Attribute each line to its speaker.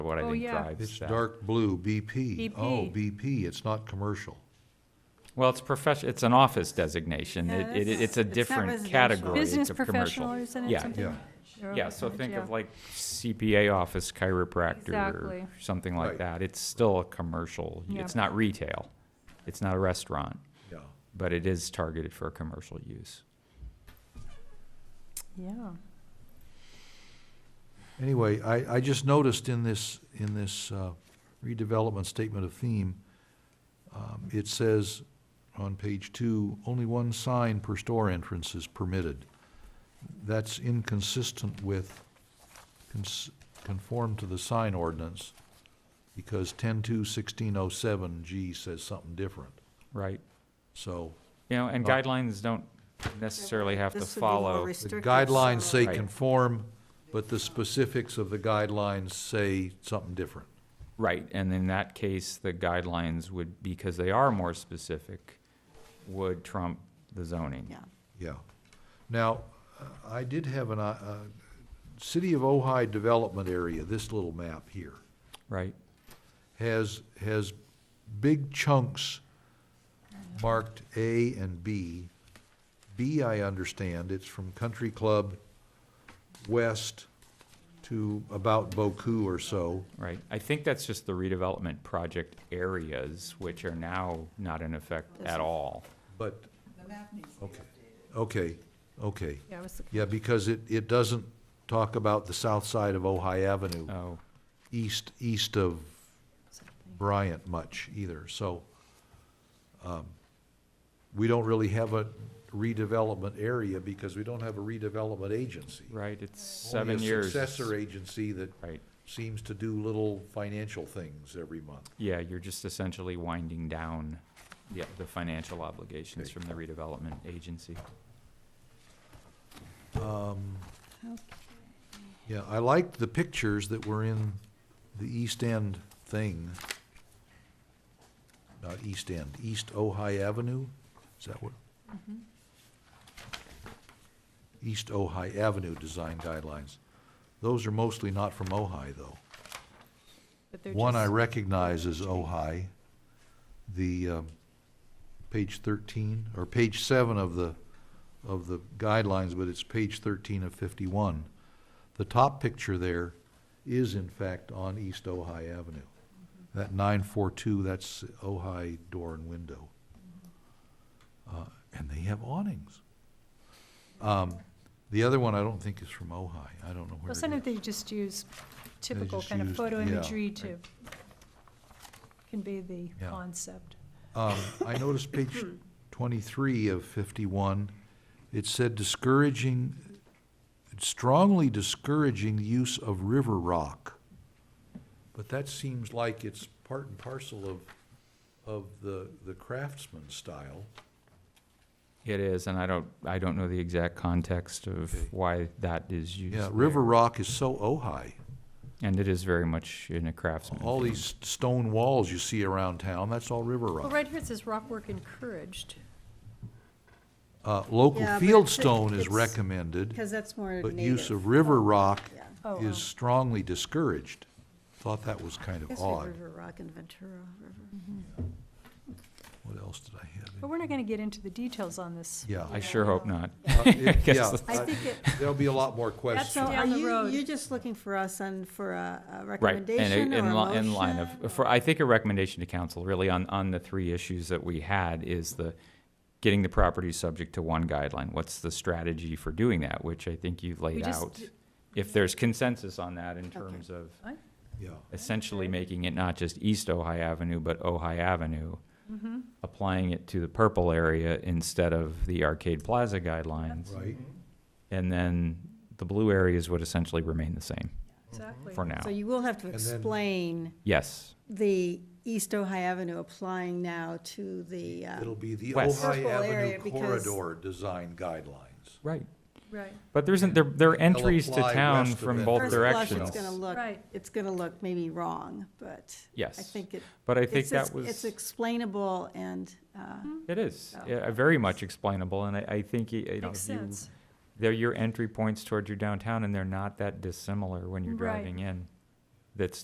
Speaker 1: what I
Speaker 2: Oh,
Speaker 1: think
Speaker 2: yeah.
Speaker 1: drives
Speaker 3: It's
Speaker 1: that.
Speaker 3: dark blue, BP.
Speaker 2: BP.
Speaker 3: Oh, BP, it's not commercial.
Speaker 1: Well, it's profession, it's an office designation. It,
Speaker 4: Yeah,
Speaker 1: it,
Speaker 4: that's-
Speaker 1: it's a
Speaker 4: it's not
Speaker 1: different
Speaker 4: residential.
Speaker 1: category to
Speaker 2: Business
Speaker 1: commercial.
Speaker 2: professional, isn't it?
Speaker 1: Yeah.
Speaker 2: Something-
Speaker 3: Yeah.
Speaker 2: or-
Speaker 1: Yeah, so think
Speaker 2: yeah.
Speaker 1: of like CPA office chiropractor
Speaker 2: Exactly.
Speaker 1: or something like
Speaker 3: Right.
Speaker 1: that. It's still a commercial.
Speaker 2: Yeah.
Speaker 1: It's not retail. It's not a restaurant,
Speaker 3: Yeah.
Speaker 1: but it is targeted for commercial use.
Speaker 2: Yeah.
Speaker 3: Anyway, I, I just noticed in this, in this uh, redevelopment statement of theme, um, it says on page two, only one sign per store entrance is permitted. That's inconsistent with, cons- conform to the sign ordinance, because ten-two sixteen oh seven G says something different.
Speaker 1: Right.
Speaker 3: So
Speaker 1: You know, and
Speaker 3: Right.
Speaker 1: guidelines don't necessarily have to
Speaker 4: This would be more
Speaker 1: follow.
Speaker 3: the
Speaker 4: restrictive,
Speaker 3: guidelines
Speaker 4: so-
Speaker 3: say
Speaker 1: Right.
Speaker 3: conform, but the specifics of the guidelines say something different.
Speaker 1: Right, and in that case, the guidelines would, because they are more specific, would trump the zoning.
Speaker 4: Yeah,
Speaker 3: Yeah. Now, uh, I did have an, uh, uh, City of Ojai Development Area, this little map here,
Speaker 1: Right,
Speaker 3: has, has big chunks marked A and B. B, I understand, it's from Country Club west to about Boku or so.
Speaker 1: right. I think that's just the redevelopment project areas, which are now not in effect at all.
Speaker 3: But. Okay, okay, okay.
Speaker 2: Yeah, I was looking-
Speaker 3: Yeah, because it, it doesn't talk about the south side of Ojai Avenue,
Speaker 1: Oh,
Speaker 3: east, east of Bryant much either, so, um, we don't really have a redevelopment area because we don't have a redevelopment agency.
Speaker 1: right, it's seven
Speaker 3: Only a
Speaker 1: years.
Speaker 3: Successor agency that
Speaker 1: Right,
Speaker 3: seems to do little financial things every month.
Speaker 1: yeah, you're just essentially winding down, yeah, the financial obligations
Speaker 3: Okay.
Speaker 1: from the redevelopment agency.
Speaker 3: Yeah, I liked the pictures that were in the East End thing. Not East End, East Ojai Avenue, is that what? East Ojai Avenue Design Guidelines. Those are mostly not from Ojai, though.
Speaker 2: but they're
Speaker 3: One I
Speaker 2: just-
Speaker 3: recognize is Ojai, the, um, page thirteen, or page seven of the, of the guidelines, but it's page thirteen of fifty-one. The top picture there is in fact on East Ojai Avenue. That nine four two, that's Ojai door and window. Uh, and they have awnings. Um, the other one I don't think is from Ojai, I don't know where
Speaker 2: Well,
Speaker 3: it is.
Speaker 2: sometimes they just use typical
Speaker 3: just
Speaker 2: kind of
Speaker 3: used-
Speaker 2: photo
Speaker 3: yeah,
Speaker 2: imagery to convey the
Speaker 3: Yeah.
Speaker 2: concept.
Speaker 3: Um, I noticed page twenty-three of fifty-one, it said discouraging, strongly discouraging the use of river rock. But that seems like it's part and parcel of, of the, the craftsman style.
Speaker 1: It is, and I don't, I don't know the exact context
Speaker 3: Okay.
Speaker 1: of why that is used.
Speaker 3: Yeah,
Speaker 1: there.
Speaker 3: river rock is so Ojai.
Speaker 1: And it is very much in a craftsman.
Speaker 3: All
Speaker 1: thing.
Speaker 3: these stone walls you see around town, that's all river
Speaker 2: Well,
Speaker 3: rock.
Speaker 2: right here it says rock work encouraged.
Speaker 3: Uh, local
Speaker 4: Yeah, but
Speaker 3: field
Speaker 4: it's-
Speaker 3: stone is
Speaker 4: it's-
Speaker 3: recommended,
Speaker 4: because that's more native.
Speaker 3: but use of river rock
Speaker 4: Yeah.
Speaker 2: Oh, oh.
Speaker 3: is strongly discouraged. Thought that was kind
Speaker 4: I guess
Speaker 3: of
Speaker 4: we have
Speaker 3: odd.
Speaker 4: River Rock and Ventura River.
Speaker 3: What else did I have?
Speaker 2: But we're not going to get into the details on this.
Speaker 3: Yeah.
Speaker 1: I sure hope not.
Speaker 3: Uh, it-
Speaker 1: guess
Speaker 3: Yeah,
Speaker 1: that's-
Speaker 4: I
Speaker 3: I-
Speaker 4: think it,
Speaker 3: there'll be a lot more
Speaker 2: all
Speaker 3: questions.
Speaker 2: I- on
Speaker 4: yeah,
Speaker 2: the
Speaker 4: you,
Speaker 2: road.
Speaker 4: you're just looking for us on, for a a
Speaker 1: Right, and
Speaker 4: recommendation
Speaker 1: a-
Speaker 4: or a
Speaker 1: in, li- in line
Speaker 4: motion.
Speaker 1: of, for, I think a recommendation to council really on, on the three issues that we had is the, getting the property subject to one guideline. What's the strategy for doing that, which I think you've
Speaker 2: We
Speaker 1: laid
Speaker 2: just-
Speaker 1: out. If there's consensus on that in terms of
Speaker 3: Yeah,
Speaker 1: essentially making it not just East Ojai Avenue, but Ojai Avenue.
Speaker 2: Mm-hmm.
Speaker 1: Mm-hmm. Applying it to the purple area instead of the Arcade Plaza guidelines.
Speaker 3: right.
Speaker 1: And then the blue areas would essentially remain the same
Speaker 2: Exactly.
Speaker 1: for now.
Speaker 4: So you will have to
Speaker 3: And then-
Speaker 4: explain
Speaker 1: Yes,
Speaker 4: the East Ojai Avenue applying now to the, uh,
Speaker 3: It'll be the
Speaker 1: West.
Speaker 3: Ojai
Speaker 4: Purple area
Speaker 3: Avenue
Speaker 4: because-
Speaker 3: corridor design guidelines.
Speaker 1: right.
Speaker 2: Right,
Speaker 1: But there isn't, there, there are entries to
Speaker 3: apply
Speaker 1: town
Speaker 3: west of
Speaker 1: from
Speaker 3: it.
Speaker 1: both
Speaker 4: first blush, it's
Speaker 1: directions.
Speaker 4: gonna look,
Speaker 2: Right.
Speaker 4: it's gonna look maybe wrong, but I
Speaker 1: Yes,
Speaker 4: think it,
Speaker 1: but I think
Speaker 4: it's, ex-
Speaker 1: that
Speaker 4: it's
Speaker 1: was,
Speaker 4: explainable and, uh,
Speaker 1: it is,
Speaker 4: Oh.
Speaker 1: yeah, very much explainable, and I, I think, y- you know,
Speaker 2: makes
Speaker 1: if you,
Speaker 2: sense.
Speaker 1: they're your entry points towards your downtown, and they're not that dissimilar when you're
Speaker 2: Right.
Speaker 1: driving in. That's